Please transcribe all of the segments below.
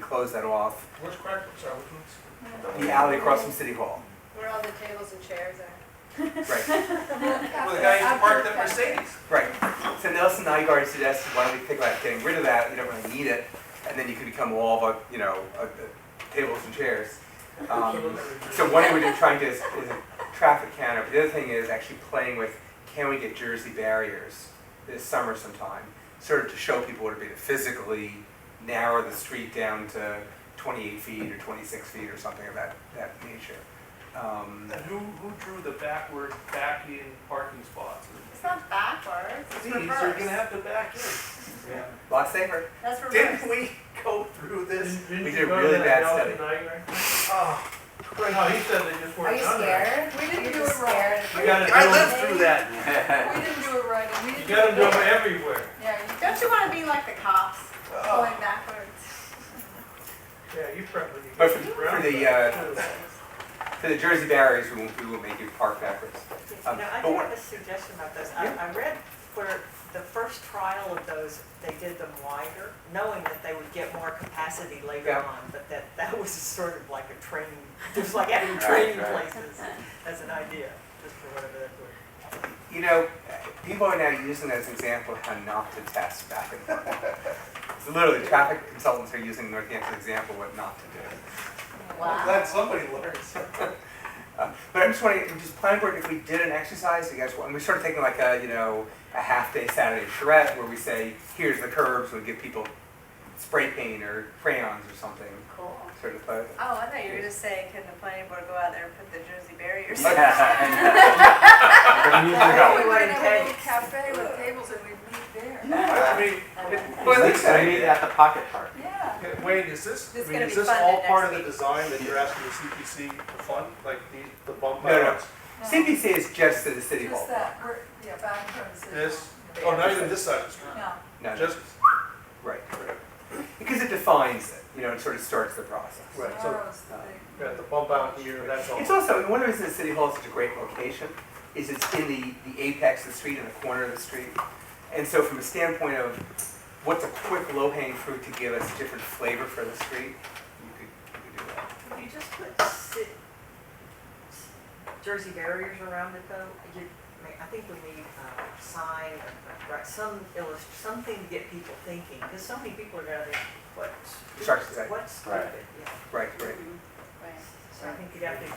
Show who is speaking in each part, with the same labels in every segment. Speaker 1: close that off.
Speaker 2: Where's Cracker Salad?
Speaker 1: The alley across from City Hall.
Speaker 3: Where all the tables and chairs are.
Speaker 1: Right,
Speaker 2: Well, the guy used to park the Mercedes.
Speaker 1: right. So Nelson Nygaard suggested, why don't we think about getting rid of that? You don't really need it. And then you could become all of, a- you know, a- a- tables and chairs. Um, So one thing we're trying to is, is a traffic counter, but the other thing is actually playing with, can we get Jersey barriers this summer sometime? Sort of to show people what it'd be to physically narrow the street down to twenty-eight feet or twenty-six feet or something of that, that nature. Um,
Speaker 4: And who, who drew the backward, back in parking spots?
Speaker 3: It's not backwards, it's
Speaker 4: See, so you're gonna
Speaker 3: reversed.
Speaker 4: have to back in.
Speaker 1: Lot safer.
Speaker 3: That's reversed.
Speaker 4: Didn't we go through this?
Speaker 1: We did a really bad study.
Speaker 4: Oh, no, he said they just
Speaker 3: Are
Speaker 4: weren't
Speaker 3: you
Speaker 4: done there.
Speaker 3: scared?
Speaker 5: We
Speaker 3: You're
Speaker 5: didn't do
Speaker 3: just
Speaker 5: it right.
Speaker 3: scared.
Speaker 4: You gotta do
Speaker 3: I
Speaker 4: it.
Speaker 3: lived through
Speaker 5: We
Speaker 4: that.
Speaker 5: didn't do it right, and we
Speaker 4: You
Speaker 5: didn't.
Speaker 4: gotta do
Speaker 5: do it
Speaker 4: them
Speaker 5: right.
Speaker 4: everywhere.
Speaker 5: Yeah, you
Speaker 3: Don't you wanna be like the cops,
Speaker 4: Oh.
Speaker 3: going backwards?
Speaker 4: Yeah, you probably.
Speaker 1: But for- for the, uh, For the Jersey barriers, we won't, we will make you park backwards.
Speaker 6: Now,
Speaker 1: Um,
Speaker 6: I
Speaker 1: but
Speaker 6: do
Speaker 1: what-
Speaker 6: have a suggestion about those. I,
Speaker 1: Yeah.
Speaker 6: I read where the first trial of those, they did them wider, knowing that they would get more capacity later
Speaker 1: Yeah.
Speaker 6: on, but that, that was sort of like a training, just like having training
Speaker 1: right.
Speaker 6: places as an idea, just for whatever that word.
Speaker 1: You know, people are now using that as an example of how not to test back and forth. So literally, traffic consultants are using Northampton's example of what not to do.
Speaker 3: Wow.
Speaker 4: Glad somebody learns.
Speaker 1: Uh, But I'm just wondering, just planning board, if we did an exercise, you guys, want- and we started taking like a, you know, a half-day Saturday charrette where we say, here's the curbs, we give people spray paint or crayons or something,
Speaker 3: Cool.
Speaker 1: sort of. uh,
Speaker 3: Oh, I thought you were just saying, can the planning board go out there and put the Jersey barriers?
Speaker 1: Okay.
Speaker 5: Yeah, we
Speaker 6: Yeah.
Speaker 5: would have a
Speaker 6: Yeah.
Speaker 5: little cafe with tables and we'd meet there.
Speaker 4: I mean, it-
Speaker 1: Well, I think so.
Speaker 7: at the pocket park.
Speaker 5: Yeah.
Speaker 4: uh, Wayne, is this,
Speaker 3: It's
Speaker 4: I mean,
Speaker 3: gonna
Speaker 4: is
Speaker 3: be
Speaker 4: this
Speaker 3: funded
Speaker 4: all part of
Speaker 3: next
Speaker 4: the design that you're asking the CPC to fund, like the, the bump
Speaker 1: No, no.
Speaker 4: outs?
Speaker 5: No,
Speaker 1: CPC is just to the city hall.
Speaker 5: Just that, we're, yeah, back from the city.
Speaker 4: This?
Speaker 5: hall.
Speaker 4: Oh, not even this side of the street,
Speaker 5: No,
Speaker 1: No, no,
Speaker 4: just,
Speaker 1: right, right. Because it defines it, you know, it sort of starts the process.
Speaker 4: Right, so-
Speaker 5: tomorrow's the big.
Speaker 4: yeah, the bump out here, that's all.
Speaker 1: It's also, one of the reasons the City Hall is such a great location is it's in the, the apex of the street, in the corner of the street. And so from a standpoint of what's a quick low-hanging fruit to give us different flavor for the street, you could, you could do that.
Speaker 6: Would you just put si- Jersey barriers around it though? You, I mean, I think we need uh, a sign, uh, right, some illust, something to get people thinking, because so many people are gonna think, what?
Speaker 1: Shark attack.
Speaker 6: What's
Speaker 7: Right.
Speaker 6: stupid, yeah.
Speaker 1: Right, right.
Speaker 3: Right.
Speaker 6: So I think you'd have to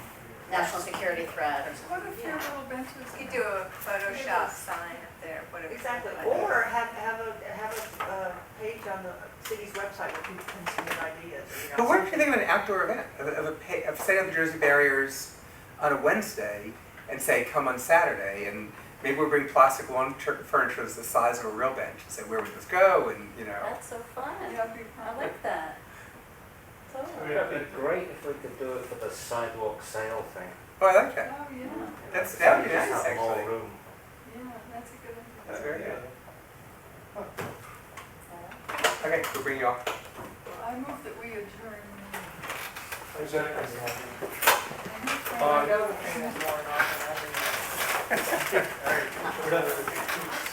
Speaker 3: National security threat or
Speaker 5: What if your
Speaker 6: Yeah.
Speaker 5: little benches?
Speaker 3: You could do a Photoshop sign up there, whatever.
Speaker 6: Exactly, or have, have a, have a, uh, page on the city's website where people can submit ideas. you know,
Speaker 1: But what if you
Speaker 6: something.
Speaker 1: think of an outdoor event, of, a- of a, pa- of setting up the Jersey barriers on a Wednesday and say, come on Saturday, and maybe we'll bring plastic lawn tur- furniture that's the size of a real bench, and say, where would this go, and, you know.
Speaker 8: That's so fun.
Speaker 5: Yeah, it'd be
Speaker 8: I
Speaker 5: fun.
Speaker 8: like that.
Speaker 4: I
Speaker 8: Totally.
Speaker 4: mean, I
Speaker 7: That'd
Speaker 4: think-
Speaker 7: be great if we could do it for the sidewalk sale thing.
Speaker 1: Oh, I like
Speaker 5: Oh,
Speaker 1: that.
Speaker 5: yeah,
Speaker 1: That's, that would be
Speaker 7: Just
Speaker 1: nice,
Speaker 7: have more
Speaker 1: actually.
Speaker 7: room.
Speaker 5: yeah, that's a good idea.
Speaker 1: That's very good.
Speaker 3: or.
Speaker 1: Okay, we'll bring you off.
Speaker 5: I move that we adjourn.
Speaker 4: Is that-
Speaker 5: I
Speaker 4: Uh,
Speaker 5: move that we adjourn.
Speaker 4: All right, we're done with it.